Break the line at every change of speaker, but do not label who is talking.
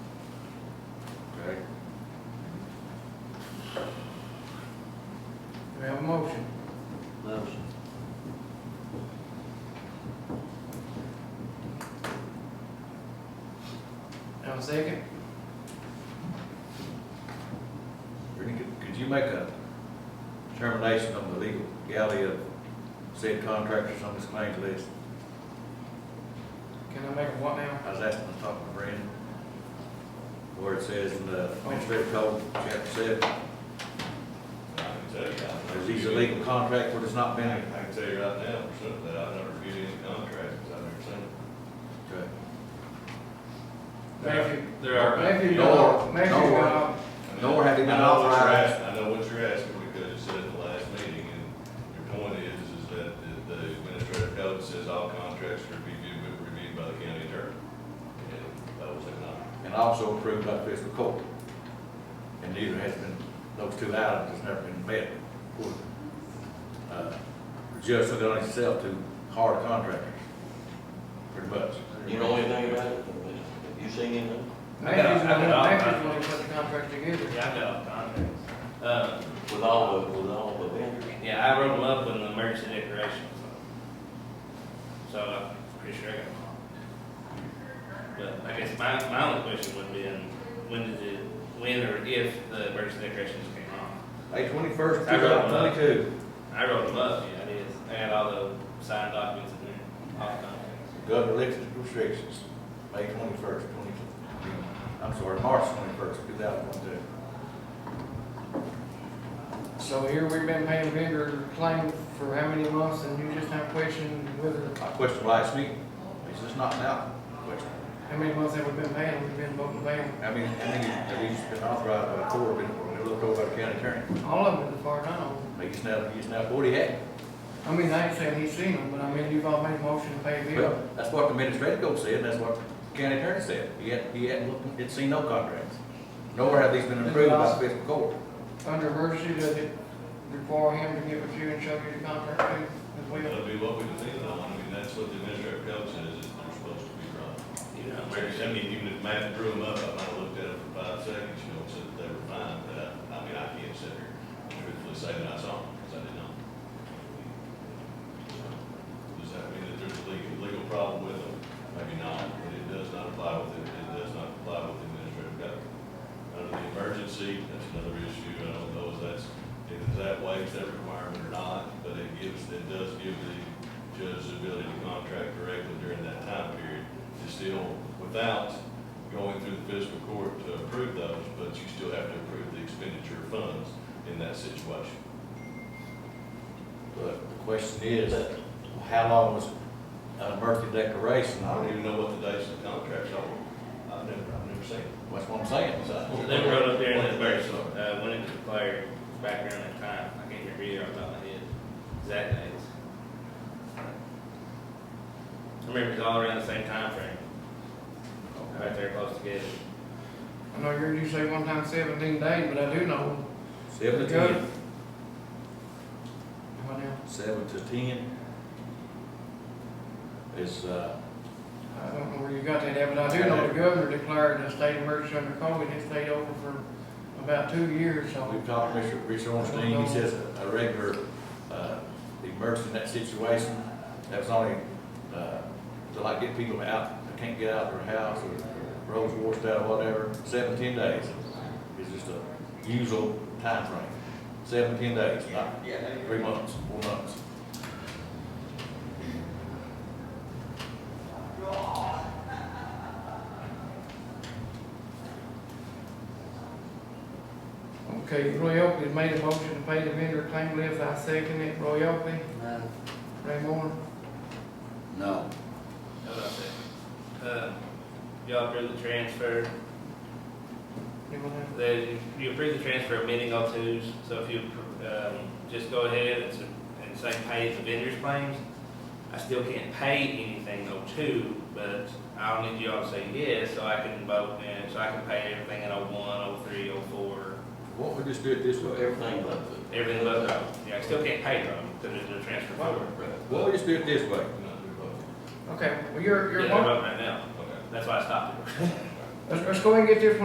mistaken?
Brittany, could, could you make a determination on the legal galley of said contractors on this claims list?
Can I make a what now?
I was asking to talk to Brandon, where it says in the administrative code, chapter seven,
I can tell you. I
there's
never
these
viewed any-
illegal contract where it's not
I
been.
can I can tell you right now, for certain, that I've never viewed any contract, because I've never seen it.
Okay.
Maybe,
There are.
maybe,
No,
not- maybe,
no.
not.
I mean,
Nor have you been
I know what you're
authorized.
asking- I know what you're asking, because you said at the last meeting, and your point is, is that the- the administrative code says all contracts are reviewed, reviewed by the county attorney. And that was not.
And also approved by the fiscal court. And neither has been, those two items has never been met. Uh, The judge took it on himself to hard contractors, pretty much.
You know anything about it? Have you seen anything?
Maybe,
I got all
maybe
mine.
when they put the contract together.
Yeah, I got contracts. Uh,
With all the, with all the vendors?
yeah, I wrote them up in the emergency decoration, so. So I'm pretty sure I got them all. But I guess my, my only question would be, in when did it, when or if the emergency decorations came off?
May twenty-first, two
I got
thousand
one up.
twenty-two,
I wrote them up, yeah, I did. I had all the signed documents in there, all the contracts.
governor elected restrictions, May twenty-first, twenty-two. I'm sorry, March twenty-first, two thousand twenty-two.
So here we've been paying vendor claim for how many months and you just have a question whether,
My question last week, is this not now? Question.
how many months have we been paying, we've been voting to pay them?
I mean, I mean, have these been authorized by the court, been, been looked over by the county attorney?
All of them as far as I know.
Like he's now, he's now forty had.
I mean, I ain't saying he's seen them, but I mean, you've all made a motion to pay a bill.
Well, that's what the administrative code said, and that's what the county attorney said. He had, he hadn't looked, had seen no contracts. Nor have these been approved by the fiscal court.
Under emergency, does it require him to give it to you and show you the contract too, as well?
That'd be what we did, though, I mean, that's what the administrative code says, is they're supposed to be run.
You know,
Mary,
emergency.
I mean, even if Matt drew them up, I might have looked at them for five seconds, you know, and said that they were fine, but I, I mean, I can't sit here and truthfully say that I saw them, because I didn't know. Does that mean that there's a legal, legal problem with them? Maybe not, but it does not apply with, it It does not apply with the administrative code. Under the emergency, that's another issue, I don't know if that's, if that waives that requirement or not, but it gives, it does give the judge the ability to contract directly during that time period is still without going through the fiscal court to approve those, but you still have to approve the expenditure of funds in that situation.
But the question is, how long was an emergency declaration?
I don't even know what the dates of the contracts are. I've never, I've never seen it.
That's what I'm saying.
So-
They wrote up there in the
What the
verse,
dates are.
uh, when it was declared, back around that time, I can't remember either off the top of my head, exact dates. I remember it was all around the same time frame, right there close together.
I know you you say one time seventeen days, but I do know.
Seven to ten,
What now?
seven to ten is, uh,
I don't know where you got that at, but I do know the governor declared a state emergency under COVID, it stayed open for about two years, so.
We've talked to Mr. Rich Ornstein, he says a regular, uh, immersed in that situation, that's only, uh, to like get people out, that can't get out of their house, or roads washed out, or whatever, seven, ten days is just a usual time frame. Seven, ten days, not three months, four months.
Okay, Roy Oakley has made a motion to pay the vendor claim list, I second it, Roy Oakley,
No.
Ray Moore,
No.
Hold on a second. Uh, Y'all approve the transfer,
anyone else?
then you approve the transfer of meeting all twos, so if you, um, just go ahead and, s- and say pay the vendor's claims, I still can't pay anything oh two, but I'll need y'all to say yes, so I can vote, and so I can pay everything in oh one, oh three, oh four,
Why don't we just do it this way?
Everything but the.
everything but those. Yeah, I still can't pay them, because there's a transfer forward.
Why don't we just do it this way?
Not do both.
Okay, well, you're,
Yeah,
you're,
they're
welcome.
voting right now,
Okay.
that's why I stopped it.
let's, let's go ahead and get this one